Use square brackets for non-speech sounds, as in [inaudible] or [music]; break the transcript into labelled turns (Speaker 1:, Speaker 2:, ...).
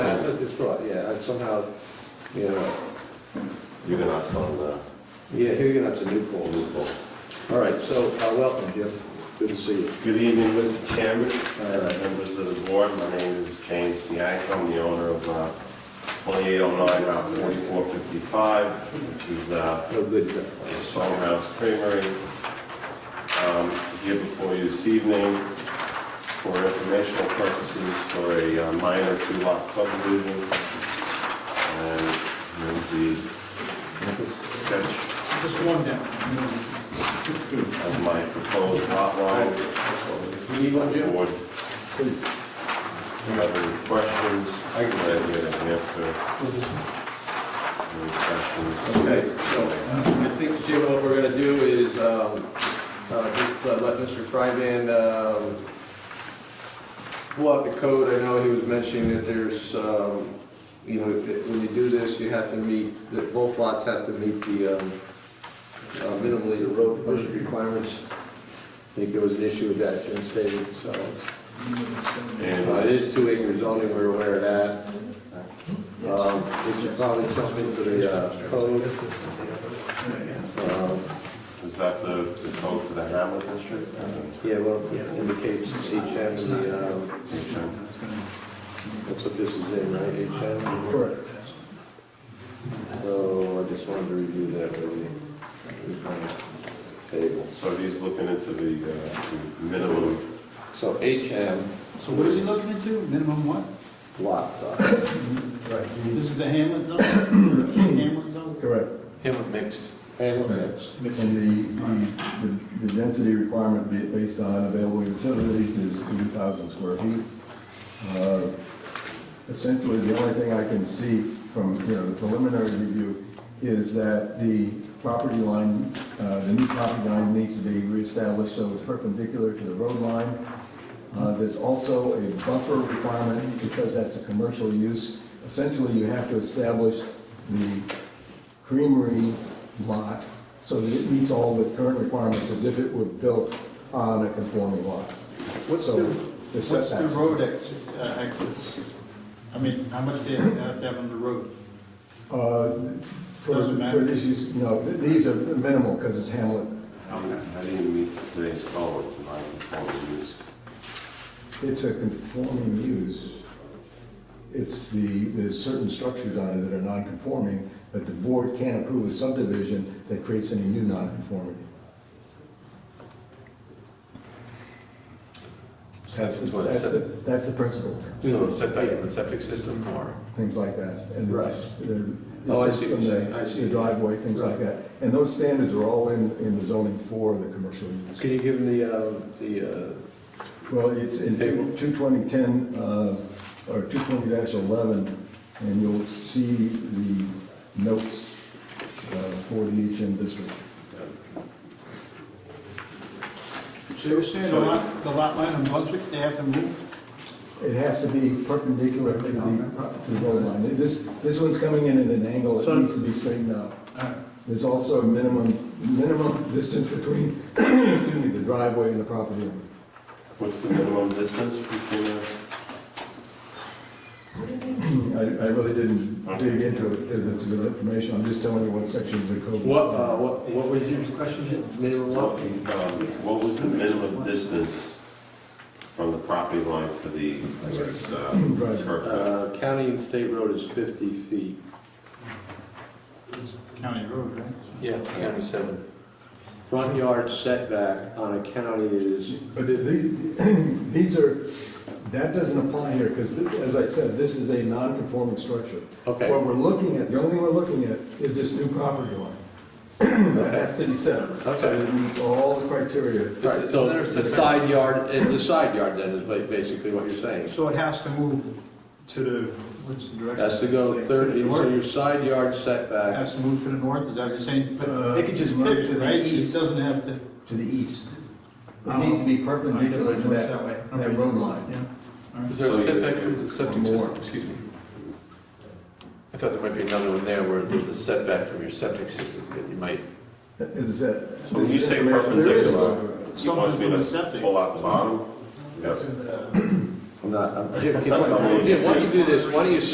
Speaker 1: and somehow, you know,
Speaker 2: Huguenots on the
Speaker 1: yeah, here you're gonna have to new poles.
Speaker 2: loopholes.
Speaker 1: All right, so, uh, welcome, Jim. Good to see you.
Speaker 2: Good evening, Mr. Chairman, uh, members of the board. My name is James Bianco. I'm the owner of uh, 2809 Route 4455, which is uh,
Speaker 1: No good, Jim.
Speaker 2: the Songhouse Creamery. Um, Here before you this evening for informational purposes for a uh, minor two-lot subdivision. And here's the sketch
Speaker 3: Just one down.
Speaker 2: of my proposed lot line.
Speaker 1: You need one,
Speaker 2: Board, have any questions? I can let you an answer. Any
Speaker 3: Okay,
Speaker 2: questions?
Speaker 3: so I think, Jim, what we're gonna do is, um, uh, just uh, let Mr. Fryman, um, pull out the code. I know he was mentioning that there's, um, you know, that when you do this, you have to meet, that both lots have to meet the, um, uh, minimally the road frontage requirements. I think there was an issue with that, Jim stated, so. Uh,
Speaker 2: And
Speaker 3: It is two acre zoning, we're aware of that. Um, This is probably something for the uh, code. Um,
Speaker 2: is that the, the code for the Hamlet district?
Speaker 3: Yeah, well, it indicates HM, the, um, that's what this is in, right, HM? Correct. So I just wanted to review that really. Table.
Speaker 2: So he's looking into the, uh, the minimum,
Speaker 3: So HM
Speaker 4: So what is he looking into? Minimum what?
Speaker 3: lot size.
Speaker 4: This is the Hamlet zone, or Hamlet zone?
Speaker 5: Correct.
Speaker 1: Him mixed.
Speaker 3: And look,
Speaker 5: And the- the, the density requirement ba- based on available utilities is 2,000 square feet. Uh, Essentially, the only thing I can see from, you know, the preliminary review is that the property line, uh, the new property line needs to be reestablished so it's perpendicular to the road line. Uh, There's also a buffer requirement because that's a commercial use. Essentially, you have to establish the creamery lot so that it meets all the current requirements as if it were built on a conforming lot.
Speaker 4: What's
Speaker 5: So
Speaker 4: the,
Speaker 5: the
Speaker 4: what's the
Speaker 5: setbacks.
Speaker 4: road exit, uh, access? I mean, how much do you have to have on the road?
Speaker 5: Uh, For
Speaker 4: Doesn't matter.
Speaker 5: for this use, no, th- these are minimal because it's Hamlet.
Speaker 2: I I didn't meet today's code, it's my informal use.
Speaker 5: It's a conforming use. It's the, there's certain structures on it that are non-conforming, but the board can't approve a subdivision that creates any new non-conformity. That's the-
Speaker 6: what it
Speaker 5: that's
Speaker 6: said.
Speaker 5: the- That's the principle,
Speaker 6: So setback from the septic system or?
Speaker 5: things like that. and uh,
Speaker 3: Right.
Speaker 5: the-
Speaker 3: Oh, I see what
Speaker 5: from
Speaker 3: you're
Speaker 5: the-
Speaker 3: saying. I see.
Speaker 5: The driveway, things like that. And those standards are all in, in the zoning for the commercial use.
Speaker 3: Can you give him the, uh, the, uh,
Speaker 5: Well, it's in
Speaker 3: Table.
Speaker 5: 22010, uh, or 220-11, and you'll see the notes uh, for the HM district.
Speaker 4: So you're saying the lot, the lot line on Brunswick, they have to move?
Speaker 5: It has to be perpendicular to the, to the road line. This, this one's coming in at an angle, it
Speaker 4: So-
Speaker 5: needs to be straightened out.
Speaker 4: Alright.
Speaker 5: There's also a minimum, minimum distance between, [coughs] excuse me, the driveway and the property line.
Speaker 2: What's the minimum distance between the?
Speaker 5: I, I really didn't dig into it, because it's good information, I'm just telling you what sections of the code.
Speaker 3: what, uh, what, what was your question, Jim? Minimum lot?
Speaker 2: Um, What was the minimum distance from the property line to the, I guess, uh,
Speaker 5: Right.
Speaker 2: curb cut?
Speaker 3: Uh, county and state road is fifty feet.
Speaker 4: County road, right?
Speaker 6: Yeah, seven.
Speaker 3: Front yard setback on a county is
Speaker 5: But the- [clears throat] these are, that doesn't apply here, because as I said, this is a non-conforming structure.
Speaker 3: Okay.
Speaker 5: What we're looking at, the only thing we're looking at is this new property line. [clears throat] That has to be set.
Speaker 3: Okay.
Speaker 5: It meets all the criteria.
Speaker 3: Right, so the side yard, eh, the side yard then is ba- basically what you're saying.
Speaker 4: So it has to move to the, what's the direction?
Speaker 3: Has to go
Speaker 4: Say,
Speaker 3: thirty,
Speaker 4: the
Speaker 3: so
Speaker 4: north?
Speaker 3: your side yard setback,
Speaker 4: Has to move to the north, is that what you're saying? But They could just
Speaker 5: Uh,
Speaker 4: pivot,
Speaker 5: to the
Speaker 4: right? It
Speaker 5: east.
Speaker 4: doesn't have to.
Speaker 5: To the east. It
Speaker 4: Oh.
Speaker 5: needs to be perpendicular to
Speaker 4: It's
Speaker 5: that,
Speaker 4: way.
Speaker 5: that road line.
Speaker 4: Yeah. All right.
Speaker 6: Is there a
Speaker 2: So you-
Speaker 6: setback from the septic
Speaker 5: More.
Speaker 6: system? Excuse me. I thought there might be another one there where there's a setback from your septic system that you might,
Speaker 5: As I said.
Speaker 2: So when you
Speaker 5: this is
Speaker 2: say
Speaker 5: information- there is-
Speaker 2: perpendicular, You
Speaker 4: Something
Speaker 2: want me
Speaker 4: from the
Speaker 2: to
Speaker 4: septic.
Speaker 2: pull out the bottom? Yes.
Speaker 3: I'm not, I'm- Jim, can you- Jim, why don't you do this, why don't you